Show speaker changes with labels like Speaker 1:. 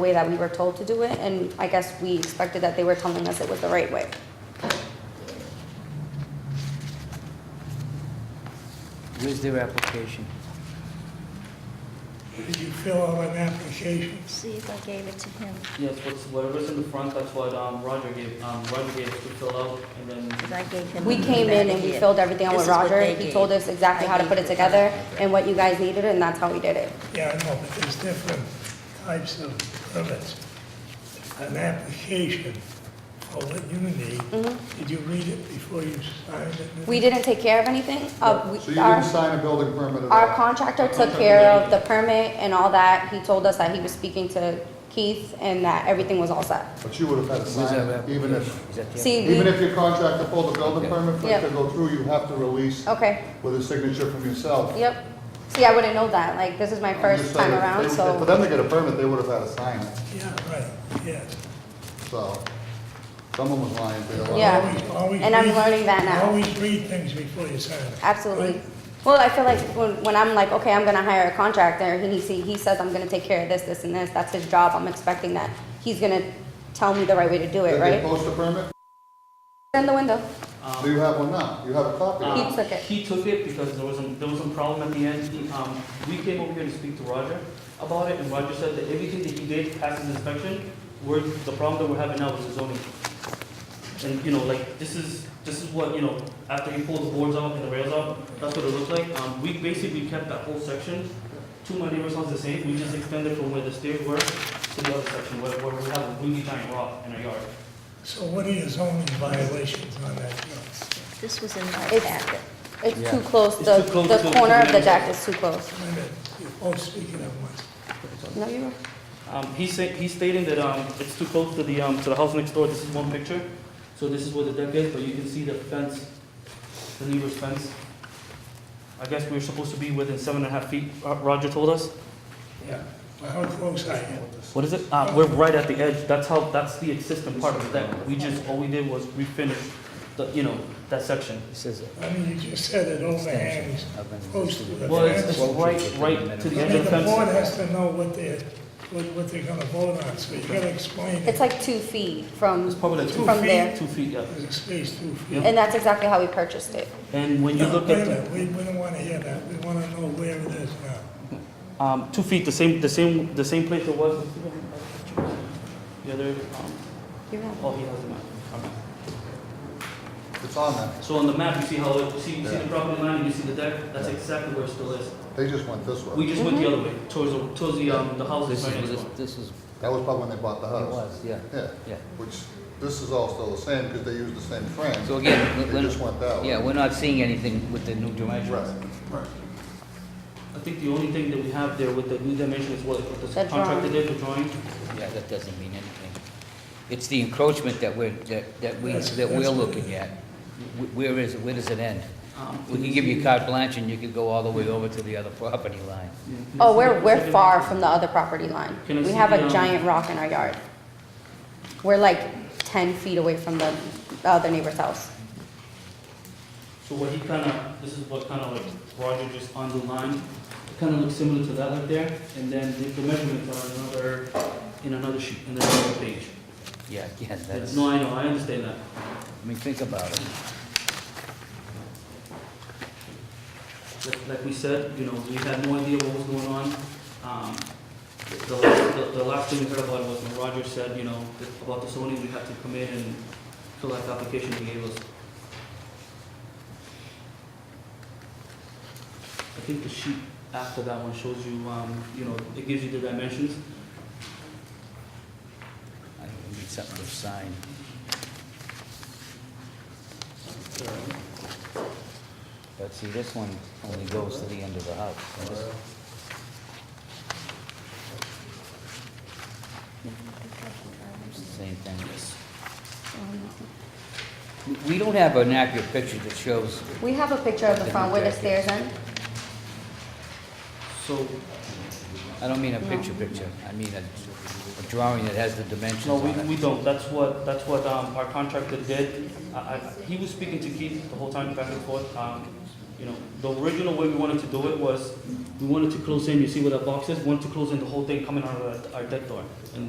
Speaker 1: way that we were told to do it, and I guess we expected that they were telling us it was the right way.
Speaker 2: Where's their application?
Speaker 3: Did you fill out an application?
Speaker 4: See if I gave it to him,
Speaker 5: Yes, what's, whatever's in the front, that's what, um, Roger gave, um, Roger gave us to fill out, and
Speaker 4: because
Speaker 5: then,
Speaker 4: I gave him.
Speaker 1: We
Speaker 4: the
Speaker 1: came in and we
Speaker 4: back
Speaker 1: filled everything out
Speaker 4: This
Speaker 1: with
Speaker 4: is what
Speaker 1: Roger,
Speaker 4: they
Speaker 1: he
Speaker 4: gave.
Speaker 1: told us exactly
Speaker 4: I
Speaker 1: how to
Speaker 4: gave
Speaker 1: put it
Speaker 4: the
Speaker 1: together
Speaker 4: front.
Speaker 1: and what you guys needed, and that's how we did it.
Speaker 3: Yeah, I know, but there's different types of permits. An application for what you need, did you read it before you signed it?
Speaker 1: Mm-hmm. We didn't take care of anything, uh, we,
Speaker 6: So you
Speaker 1: our,
Speaker 6: didn't sign a building permit at all?
Speaker 1: our contractor took care of the permit and all that, he told us that he was speaking to Keith and that everything was all set.
Speaker 6: But you would have had to
Speaker 2: Where's
Speaker 6: sign
Speaker 2: their
Speaker 6: it, even if,
Speaker 2: application? Is that the-
Speaker 1: See,
Speaker 6: even
Speaker 1: we,
Speaker 6: if your contractor pulled a building permit for it
Speaker 1: Yeah. Oh.
Speaker 6: to go through, you have to release
Speaker 1: okay,
Speaker 6: with a signature from yourself.
Speaker 1: yep, see, I wouldn't know that, like, this is my
Speaker 6: I'm just
Speaker 1: first time
Speaker 6: saying, if
Speaker 1: around,
Speaker 6: they-
Speaker 1: so.
Speaker 6: For them to get a permit, they would have had to sign it,
Speaker 3: Yeah, right, yeah.
Speaker 6: so someone was lying to you.
Speaker 1: Yeah.
Speaker 3: Always- always
Speaker 1: And I'm
Speaker 3: read-
Speaker 1: learning that now.
Speaker 3: Always read things before you sign it.
Speaker 1: Absolutely.
Speaker 3: Right?
Speaker 1: Well, I feel like when, when I'm like, okay, I'm gonna hire a contractor, he needs, to- he says I'm gonna take care of this, this, and this, that's his job, I'm expecting that. He's gonna tell me the right way to do it,
Speaker 6: Did they
Speaker 1: right?
Speaker 6: post a permit? Uh,
Speaker 1: In the window,
Speaker 6: Do
Speaker 5: um.
Speaker 6: you have one now? You have a copy? of it?
Speaker 1: He took it.
Speaker 5: Uh, He took it because there was a, there was a problem at the end, He, um, we came over here to speak to Roger about it, and Roger said that everything that he did passes inspection, we're, the problem that we're having now is the zoning. And, you know, like, this is, this is what, you know, after he pulled the boards out and the rails out, that's what it looked like, um, we basically kept that whole section, to my neighbor's house the same, we just extended from where the stairs were to the other section, where, where we have a really giant rock in our yard.
Speaker 3: So what are your zoning violations on that? Joe?
Speaker 4: This was in my
Speaker 1: It's-
Speaker 4: packet.
Speaker 1: it's
Speaker 2: Yeah.
Speaker 1: too close,
Speaker 5: It's
Speaker 1: the,
Speaker 5: too close to-
Speaker 1: the
Speaker 5: to
Speaker 1: corner of the
Speaker 5: the-
Speaker 1: deck is too close.
Speaker 3: Wait a minute, You're both speaking at once.
Speaker 1: No, you were,
Speaker 5: Um, he's saying, he's stating that, um, it's too close to the, um, to the house next door, this is one picture. So this is where the deck is, but you can see the fence, the neighbor's fence. I guess we were supposed to be within seven and a half feet, uh, Roger told us.
Speaker 3: Yeah. Well, How close are you?
Speaker 5: What is it? Uh, we're right at the edge, that's how, that's the existing part of the deck. We just, all we did was we finished the, you know, that section.
Speaker 2: It says
Speaker 3: I mean, you just said it overhangs
Speaker 2: extension of an
Speaker 3: close to the
Speaker 2: existing.
Speaker 5: Well, it's, it's
Speaker 3: fence.
Speaker 5: right, right to the
Speaker 3: I
Speaker 5: edge
Speaker 3: mean,
Speaker 5: of the
Speaker 3: the board
Speaker 5: fence.
Speaker 3: has to know what they're, what what they're gonna vote on, so you gotta explain it.
Speaker 1: it's like two feet from,
Speaker 5: It's probably like two
Speaker 1: from
Speaker 3: feet.
Speaker 1: there,
Speaker 5: Two feet, yeah.
Speaker 3: There's a space two feet.
Speaker 1: and that's exactly how we purchased it.
Speaker 5: And when you
Speaker 3: No,
Speaker 5: look
Speaker 3: wait a
Speaker 5: at the.
Speaker 3: minute, We, we don't wanna hear that, we wanna know where it is now.
Speaker 5: Um, two feet, the same, the same, the same place it was. The other, um,
Speaker 1: You're right.
Speaker 5: oh, he has the map. Okay.
Speaker 6: It's on there.
Speaker 5: So on the map, you see how, it- you see, you see the property line, and you see the deck, that's exactly where it still is.
Speaker 6: They just went this way.
Speaker 5: We just went the
Speaker 1: Mm-hmm.
Speaker 5: other way, towards, the- towards the, um, the house
Speaker 2: This
Speaker 5: is
Speaker 2: is,
Speaker 5: right next
Speaker 2: this-
Speaker 5: door.
Speaker 2: this is, it
Speaker 6: That was probably when they bought the house.
Speaker 2: was, yeah,
Speaker 6: Yeah,
Speaker 2: yeah.
Speaker 6: which, this is all still the same because they used the same frame.
Speaker 2: So again, we-
Speaker 6: They
Speaker 2: we're,
Speaker 6: just went that way.
Speaker 2: yeah, we're not seeing anything with the new dimensions.
Speaker 6: Right.
Speaker 5: I think the only thing that we have there with the new dimension is what, what
Speaker 1: The
Speaker 5: the contractor
Speaker 1: drawing.
Speaker 5: did, the drawing.
Speaker 2: Yeah, that doesn't mean anything. It's the encroachment that we're, that, that we,
Speaker 3: That's-
Speaker 2: that we're
Speaker 3: that's what it
Speaker 2: looking at. Wh- Where is, it? where does it end?
Speaker 5: Um,
Speaker 2: We can give you carte blanche and you could go all the way over to the other property line.
Speaker 5: Yeah. Can I
Speaker 1: Oh,
Speaker 5: see
Speaker 1: we're,
Speaker 5: the-
Speaker 1: we're
Speaker 5: second-
Speaker 1: far from the other property line.
Speaker 5: Can I
Speaker 1: We
Speaker 5: see
Speaker 1: have
Speaker 5: the,
Speaker 1: a
Speaker 5: um,
Speaker 1: giant rock in our yard. We're like ten feet away from the other neighbor's house.
Speaker 5: So what he kind of, this is what kind of like Roger just underlined, it kind of looks similar to that right there, and then the- the measurements are in another, in another sheet, in another page.
Speaker 2: Yeah, again, that's,
Speaker 5: No,
Speaker 2: I
Speaker 5: I know, I understand that.
Speaker 2: mean, think about it.
Speaker 5: Like- Like we said, you know, we had no idea what was going on. Um, The last, the- the last thing we heard about was when Roger said, you know, that about the zoning, we had to come in and fill out the application he gave us. I think the sheet after that one shows you, um, you know, it gives you the dimensions.
Speaker 2: I need something to sign. But see, this one only goes to the end of the house. and this- Same thing. We- We don't have an accurate picture that shows,
Speaker 1: We have a picture of the front where the stairs end.
Speaker 5: So,
Speaker 2: I don't mean a picture picture, I mean a a drawing that has the dimensions
Speaker 5: no, we,
Speaker 2: on it.
Speaker 5: we don't, that's what, that's what um, our contractor did. I, I, he was speaking to Keith the whole time back and forth. Um, You know, the original way we wanted to do it was, we wanted to close in, you see where that box is, We wanted to close in the whole thing coming out of our- our deck door. And